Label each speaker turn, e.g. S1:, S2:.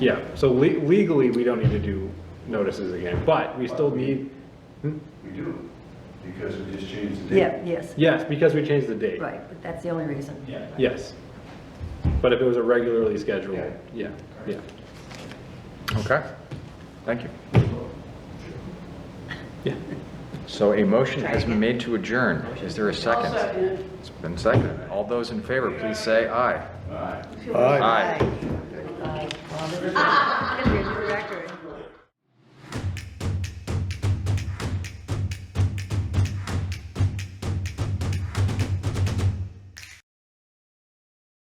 S1: Yeah, so le- legally, we don't need to do notices again, but we still need,
S2: We do, because we just changed the date.
S3: Yeah, yes,
S1: yes, because we changed the date.
S3: right, but that's the only reason.
S2: Yeah.
S1: Yes. But if it was a regularly scheduled,
S2: Yeah.
S1: yeah, yeah.
S4: Okay, thank you.
S1: Yeah.
S4: So a motion has been made to adjourn. Is there a second? It's been seconded. All those in favor, please say aye.
S2: All right.
S4: Aye.
S3: Well, there's-